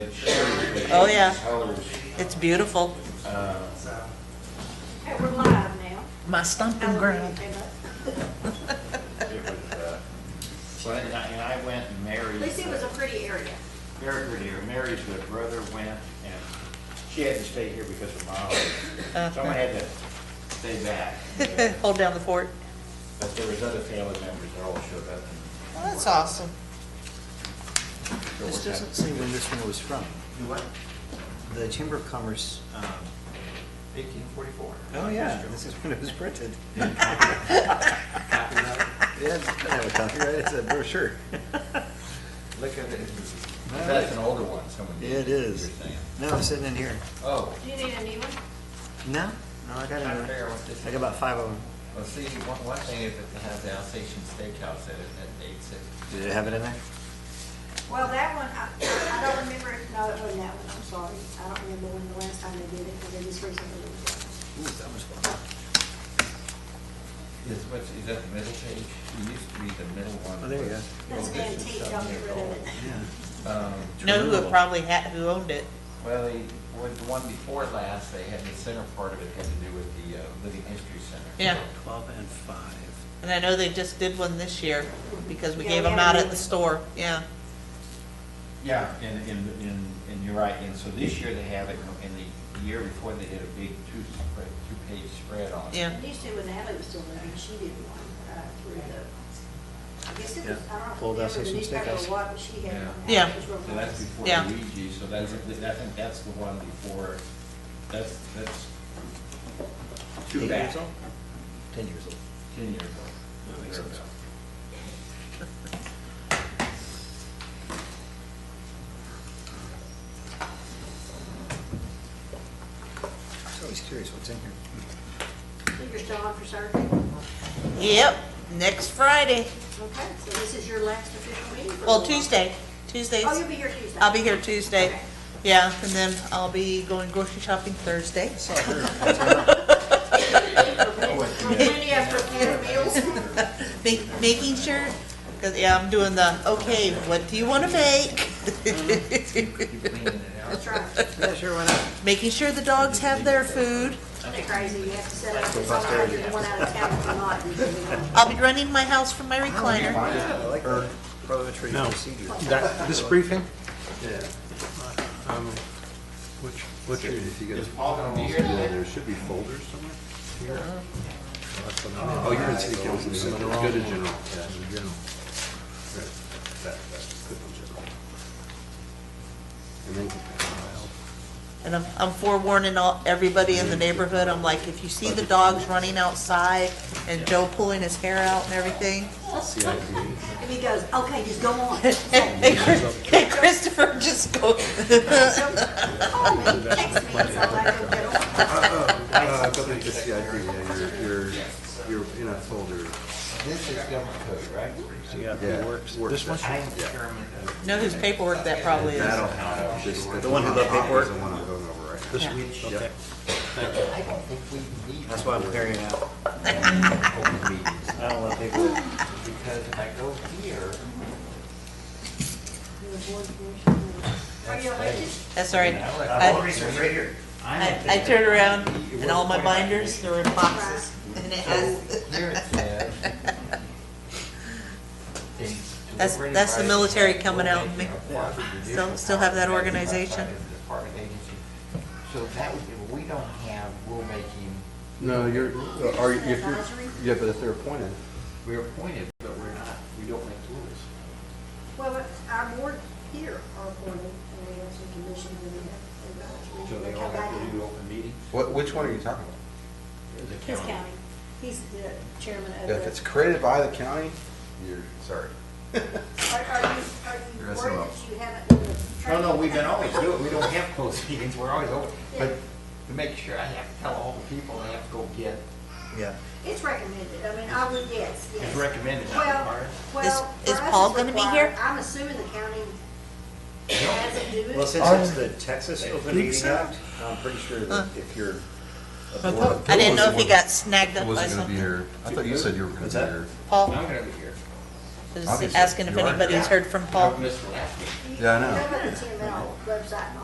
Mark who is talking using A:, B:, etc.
A: Oh, yeah.
B: Colors.
A: It's beautiful.
B: Uh,
C: Hey, we're live now.
A: My stomping ground.
B: it was, uh, So, and I, and I went and married.
C: At least it was a
B: uh,
C: pretty area.
B: Very pretty. Her married to her brother went and she had to stay here because her mom. Someone had to stay back. But
A: Hold down the fort.
B: there was other family members that all showed up.
A: Well, that's awesome.
B: So
D: This
B: what's
D: doesn't
B: happening?
D: say when this one was from.
B: Do what?
D: The Chamber of Commerce, um,
B: Eighteen forty-four.
D: oh yeah, this is when it was printed. Yeah, it doesn't have a copyright, it's a brochure.
B: Look at it. That's an older one, someone
D: Yeah,
B: did.
D: It is.
B: you're saying.
D: No, it's sitting in here.
B: Oh,
C: Do you need a new one?
D: No, no,
B: Trying
D: I got
B: to figure
D: another.
B: out what this
D: I got about five of them.
E: Well, see, one, one thing is that they have the Alsatian Steakhouse at, at eight six.
D: Did it have it in there?
C: Well, that one, I, I don't remember, if- no, it wasn't that one, I'm sorry. I don't remember when the last time they did it, because they just recently did it.
D: Ooh, that was fun.
E: Is, what's, is that the middle page? It used to be the middle one.
D: Oh, there you
E: was- well,
C: That's
D: go.
E: this is
C: antique,
E: seven
C: don't get
E: years
C: rid of
E: old.
C: it.
D: Yeah.
E: Um,
A: Know who
D: True.
A: probably had, who owned it.
E: well, the, well, the one before last, they had the center part of it had to do with the, uh, Living History Center.
A: Yeah.
D: Twelve and five.
A: And I know they just did one this year because we gave
C: Yeah, we
A: them out
C: had a
A: at the store.
C: meeting.
A: Yeah.
B: yeah, and, and, and, and you're right, and so this year they have it, and the year before they did a big two spread, two-page spread on it.
A: Yeah.
C: And used to, when Natalie was still living, she did one, uh, through the, I guess it was,
D: Yeah.
C: I don't
D: Old
C: remember the
D: Alsatian
C: newspaper or
D: Steakhouse.
C: what, but she had one.
A: Yeah.
C: It was real
E: So that's
C: nice.
E: before
A: Yeah.
E: Luigi, so that's, I think that's the one before, that's, that's
D: Eight
B: Two back,
D: years old? Ten years old.
E: ten years
D: That makes
E: old.
D: sense. I was always curious what's in here.
C: So You're still on for Saturday?
A: Yep, next Friday.
C: Okay, so this is your last official meeting? for a
A: Well,
C: little while.
A: Tuesday. Tuesdays.
C: Oh, you'll be here Tuesday?
A: I'll be here Tuesday.
C: Okay.
A: Yeah, and then I'll be going grocery shopping Thursday. So
C: Plenty of prepared meals.
A: make, making sure, because yeah, I'm doing the, okay, what do you want to make?
E: Keep cleaning it out.
C: That's right.
D: Yeah, sure, why not?
A: Making sure the dogs have their food.
C: Isn't it crazy? You have to set up, it's all right, you're one out of town tonight. you can be on.
A: I'll be running my house from my recliner.
D: I like the parliamentary
F: No.
D: procedure.
F: That, this briefing?
D: Yeah.
F: Um, Which, which area did you
B: is
F: get?
B: Paul gonna be here today?
F: There should be folders somewhere. Oh, you're in city council, so it's good in general. Yeah, in general. Right. That- that's good in general. And then-
A: And I'm, I'm forewarning all, everybody in the neighborhood, I'm like, if you see the dogs running outside and Joe pulling his hair out and everything.
C: If he goes, okay, just go on.
A: And and Chris- and Christopher just go,
C: Call me, text me, so I can get on.
F: Uh, but then just the idea, yeah, you're, you're, you're in a folder.
E: This is government code, right?
D: Yeah,
F: Yeah,
D: it works.
F: works.
D: This one?
E: I am determined. of-
A: know whose paperwork that probably is.
F: That'll help. Just-
D: The one who loved paperwork?
F: The one I'm going over right now.
D: This
A: Yeah.
D: week, okay.
E: I don't think we need.
D: That's why I'm clearing it out.
E: Open meetings,
D: I don't want paperwork.
E: because if I go here,
C: Are you elected?
A: That's all right.
E: I'll
A: I,
D: right here.
A: I I turned around and all my binders, they're in boxes. And it has,
E: here it says.
A: That's- that's the military coming out in me. Still- still have that organization.
E: So that would, be- we don't have rulemaking,
F: No, you're, uh, are, if you're, yeah, but if they're appointed.
E: we're appointed, but we're not, we don't make rules.
C: Well, but our board here are appointed, and we have some commission, and we have.
B: So they all have to do open meetings?
G: What, which one are you talking about?
C: His county. He's the chairman of the.
G: If it's created by the county, you're, sorry.
C: Are are you, are you
G: You're messing
C: worried that
G: up.
C: you haven't?
E: No, no, we've been always doing, it. we don't have closed meetings, we're always open, but to make sure, I have to tell all the people, I have to go get,
D: Yeah.
C: It's recommended, I mean, I would, yes, yes.
E: it's recommended, not
C: Well,
E: required.
A: Is-
C: well.
A: is
C: for us
A: Paul
C: it's
A: gonna be
C: required.
A: here?
C: I'm assuming the county has it do
D: Well,
C: it.
D: since it's the Texas Open Meeting Act, I'm pretty sure that if you're a board
A: Oh, I didn't know if he got snagged up by
G: Wasn't gonna be
A: something.
G: here. I thought you said you were gonna
D: What's
G: be
D: that?
G: here.
A: Paul,
E: I'm gonna be here.
A: is
G: Obviously,
A: asking if
G: you are.
A: anybody's heard from
E: I
A: Paul.
E: missed last week.
G: Yeah, I know.
C: Go to the TML website and all